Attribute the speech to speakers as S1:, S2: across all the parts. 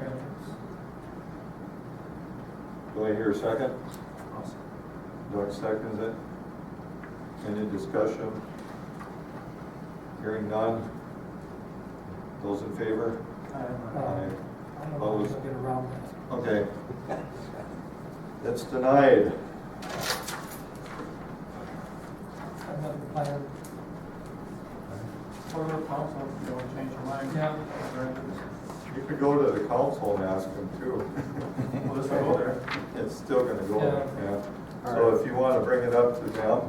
S1: Um,
S2: Do I hear a second? Doug seconds it. Any discussion? Hearing none. Those in favor?
S1: Uh, I don't know if I'll get around that.
S2: Okay. That's denied.
S1: I'm not the planner.
S3: Go to the council if you want to change your mind.
S1: Yeah.
S2: You could go to the council and ask them too.
S3: Well, this will go there.
S2: It's still gonna go, there, yeah. So if you wanna bring it up to them,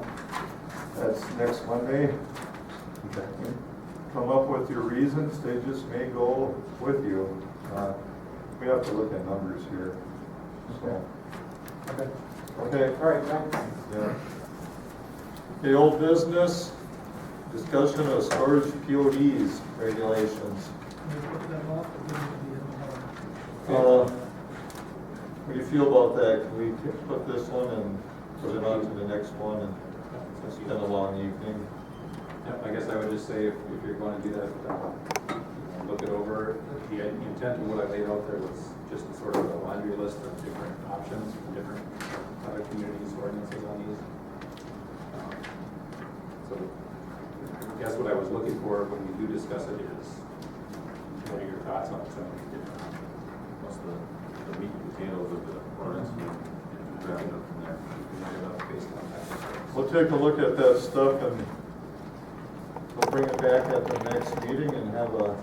S2: that's next Monday. Come up with your reasons, they just may go with you. Uh, We have to look at numbers here, so.
S3: Okay.
S2: Okay,
S3: All right, thanks.
S2: yeah. The old business, discussion of storage PODs regulations.
S1: Can we put that off? Or give it to the end of the month?
S2: Uh, What do you feel about that? Can we t- put this one and put it on to the next one? And It's been a long evening.
S4: Yeah, I guess I would just say if, if you're gonna do that, uh, you know, look it over. The the intent of what I laid out there was just sort of a laundry list of different options from different other communities' ordinances on these. Um, So I guess what I was looking for when we do discuss it is, what are your thoughts on some of these different options?
S5: What's the, the meat and potatoes of the ordinance,
S4: Mm-hmm.
S5: and then drag it up from there.
S4: We can do that based on that.
S2: We'll take a look at that stuff and we'll bring it back at the next meeting and have a,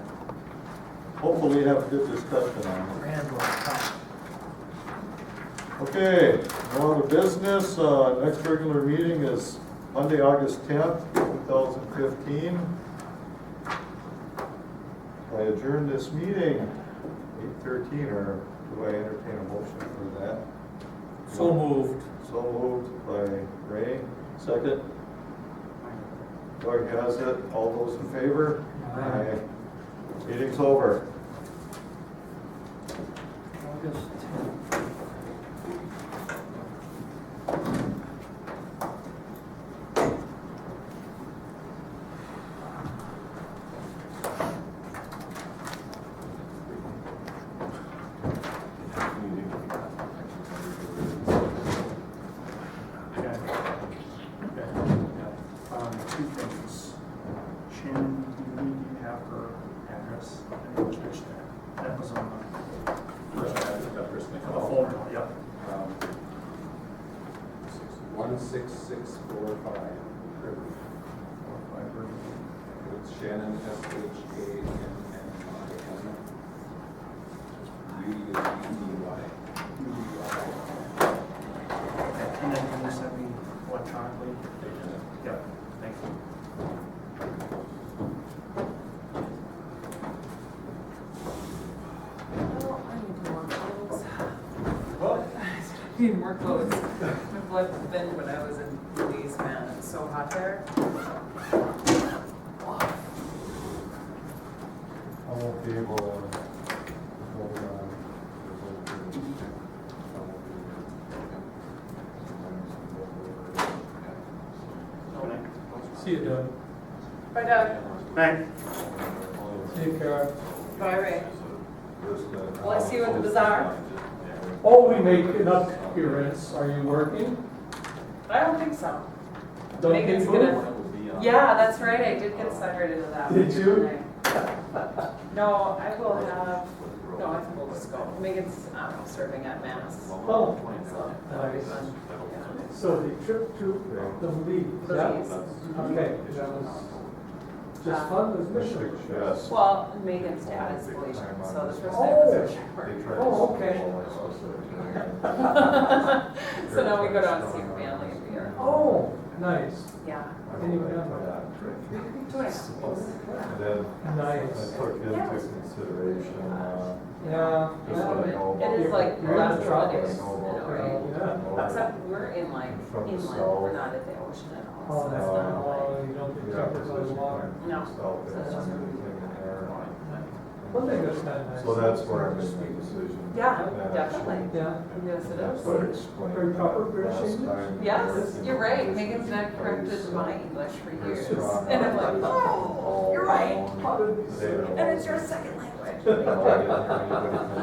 S2: hopefully have a good discussion on it.
S1: Grand one.
S2: Okay, no other business. Uh, Next regular meeting is Monday, August 10th, 2015. I adjourn this meeting, 8:13, or do I entertain a motion for that?
S1: So moved.
S2: So moved by Ray, second. Doug has it, all those in favor?
S1: Aye.
S2: Aye. Meeting's over.
S1: August tenth.
S3: Okay. Okay. Um, two things. Shannon, do you need to have her address and the church there? That was on the
S4: First,
S3: first,
S4: I
S3: ad-
S4: have to cut first
S3: the
S4: thing off.
S3: phone, yep.
S4: Um, One six six four five River. It's Shannon, S H A N N I N. U D is U D Y.
S3: Okay, And then can you send me electronically? Yep, thank you.
S6: Oh, I need more clothes. I need more clothes. My blood thinned when I was in Belize, man, it's so hot there.
S2: I won't be able to. hold on.
S1: See you, Doug.
S6: Bye, Doug.
S3: Thank.
S1: Take care.
S6: Bye, Ray.
S5: Well,
S6: Will I see you at the bazaar?
S1: Oh, we make enough appearance. Are you working?
S6: I don't think so.
S1: Don't get
S6: Megan's
S1: moved.
S6: gonna- Yeah, that's right, I did get separated into that.
S1: Did
S6: one,
S1: you?
S6: didn't I? No, I will have, no, I think we'll just go. Megan's, um, serving at Mass.
S1: Oh,
S6: so that'll be
S1: nice.
S6: fun. Yeah.
S1: So the trip to the Belize, yeah?
S6: Belize.
S1: Okay, that was just fun, was mission.
S2: Yes.
S6: Well, Megan's dad is Galatian, so the first night was a shower.
S1: Oh, okay.
S6: So now we go down to see her family every year.
S1: Oh, nice,
S6: Yeah.
S2: And then
S1: nice.
S2: I took into consideration, uh,
S1: Yeah.
S2: just what I know about.
S6: It is like
S2: You're
S1: last
S2: the truck, I
S6: holiday,
S2: know about
S6: you know,
S2: that.
S1: right?
S2: Know about
S6: Except we're in like
S2: From the
S6: inland, we're not at the ocean at all,
S1: Oh,
S6: so
S1: that's
S6: it's
S2: Uh,
S1: not,
S6: not like.
S1: oh, you don't
S2: the
S1: get covered by the
S2: opposition
S1: water.
S2: point
S6: No.
S2: itself,
S6: So
S2: it's
S6: that's just-
S2: everything in there.
S1: One thing that's kind of nice.
S2: So that's where I'm making the decision.
S6: Yeah,
S2: That
S6: definitely.
S1: Yeah,
S2: actually-
S6: Yes, it
S2: That's
S6: is.
S2: what I explained.
S1: Very proper
S2: that
S1: British
S2: last
S1: English.
S2: time.
S6: Yes, you're right, Megan's not
S2: not
S6: corrected my English for
S2: Her
S6: years,
S2: strong
S6: and I'm like,
S2: arm
S6: oh,
S2: is
S6: you're right,
S2: all
S1: How did we
S2: they
S1: say?
S2: don't-
S6: and it's your second language.
S2: they don't want anybody to